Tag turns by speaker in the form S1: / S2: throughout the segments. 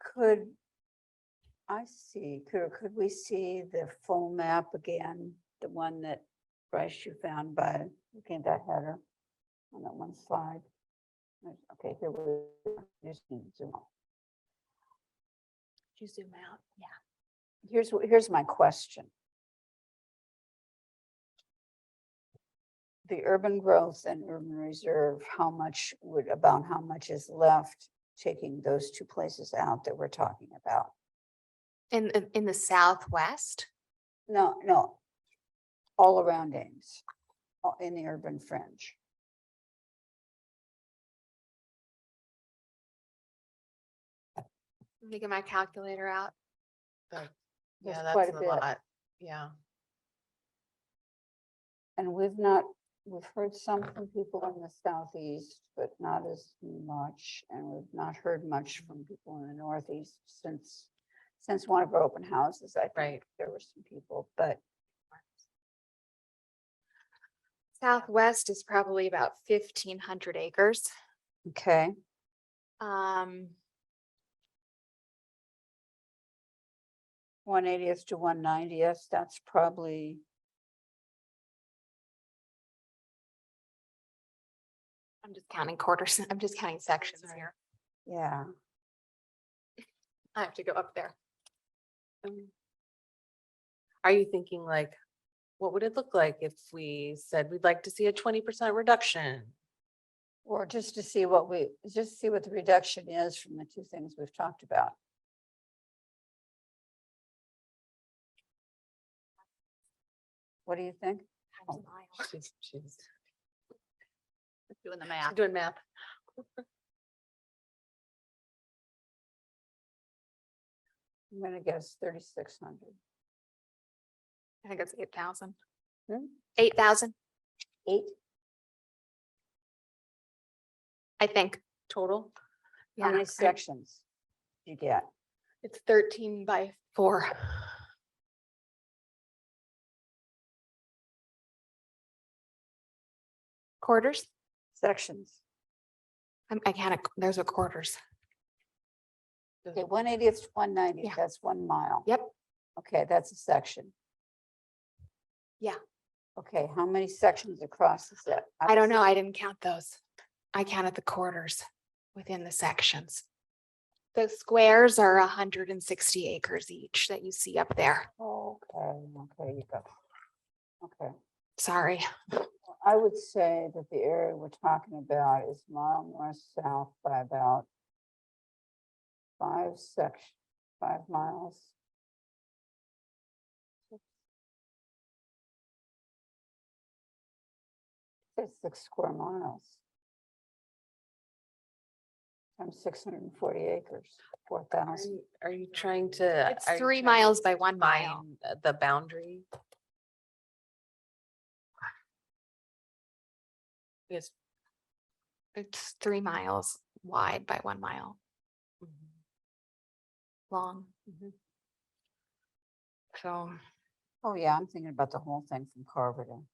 S1: could I see, could, could we see the full map again? The one that Bryce you found by looking at that header on that one slide? Right, Okay, here we are. Just need to zoom out.
S2: Did you zoom out? Yeah.
S1: Here's, wh- here's my question. The urban growth and urban reserve, how much would, about how much is left taking those two places out that we're talking about?
S2: In, in- in the southwest?
S1: No, no. All around Ames, all in the urban fringe.
S2: Let me get my calculator out.
S1: There's
S3: Yeah,
S1: quite
S3: that's
S1: a
S3: a
S1: bit.
S3: lot. Yeah,
S1: And we've not, we've heard some from people in the southeast, but not as much. And we've not heard much from people in the northeast since, since one of our open houses, I think
S3: Right.
S1: there were some people, but
S2: Southwest is probably about fifteen hundred acres.
S1: okay.
S2: Um,
S1: One eightieth to one ninetieth, that's probably,
S2: I'm just counting quarters. I'm just counting sections
S3: all right.
S2: here.
S1: yeah,
S2: I have to go up there.
S3: Um, Are you thinking like, what would it look like if we said we'd like to see a twenty percent reduction?
S1: or just to see what we, just see what the reduction is from the two things we've talked about. What do you think?
S2: Times
S1: Oh.
S2: a mile.
S3: She's she's
S2: Doing the math.
S3: doing math.
S1: I'm gonna guess thirty-six hundred.
S2: I think it's eight thousand.
S1: Hmm?
S2: Eight thousand,
S1: Eight?
S2: I think.
S3: Total?
S1: How
S2: Yeah.
S1: many sections do you get?
S2: It's thirteen by four. Quarters?
S1: Sections.
S2: I'm, I can't, those are quarters.
S1: Okay, one eightieth to one ninetieth,
S2: Yeah.
S1: that's one mile.
S2: Yep.
S1: Okay, that's a section.
S2: Yeah.
S1: Okay, how many sections across is that?
S2: I don't
S1: was-
S2: know. I didn't count those. I counted the quarters within the sections. The squares are hundred and sixty acres each that you see up there.
S1: Okay, okay, you got. Okay,
S2: Sorry.
S1: well, I would say that the area we're talking about is mile north south by about five section, five miles. It's six square miles. Times six hundred and forty acres, four
S3: Are
S1: thousand.
S3: you- Are you trying to?
S2: It's
S3: are you
S2: three
S3: trying to
S2: miles by one mile.
S3: find, uh, The boundary? Yes.
S2: It's three miles wide by one mile
S3: Mhm.
S2: long.
S3: Mhm.
S2: So
S1: Oh, yeah, I'm thinking about the whole thing from Carver to.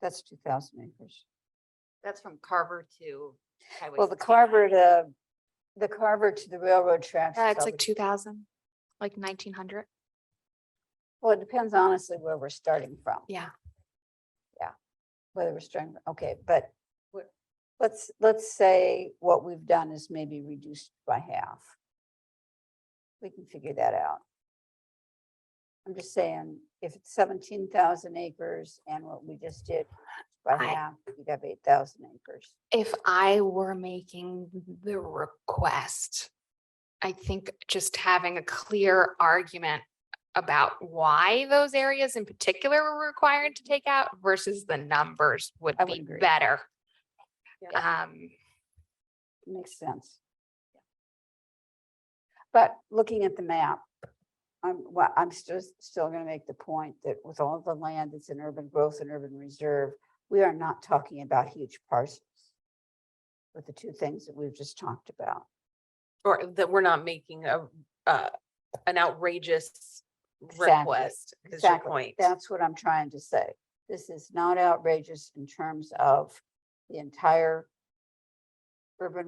S1: That's two thousand acres.
S4: That's from Carver to Highway.
S1: Well, the
S4: 69.
S1: Carver to, the Carver to the railroad tracks.
S2: uh,
S1: is
S2: it's
S1: all
S2: like
S1: the-
S2: two thousand, like nineteen hundred.
S1: Well, it depends honestly where we're starting from.
S2: Yeah.
S1: Yeah, whether we're starting, okay, but
S3: What-
S1: let's, let's say what we've done is maybe reduced by half. We can figure that out. I'm just saying, if it's seventeen thousand acres and what we just did by
S2: I-
S1: half, you'd have eight thousand acres.
S2: If I were making the request, I think just having a clear argument about why those areas in particular were required to take out versus the numbers would
S1: I would
S2: be
S1: agree.
S2: better.
S3: Yeah.
S2: Um,
S1: Makes sense. But looking at the map, I'm, well, I'm still, still gonna make the point that with all the land that's in urban growth and urban reserve, we are not talking about huge parcels. With the two things that we've just talked about.
S3: Or that we're not making a, uh, an outrageous
S1: Exactly,
S3: request is your
S1: Exactly.
S3: point.
S1: That's what I'm trying to say. This is not outrageous in terms of the entire urban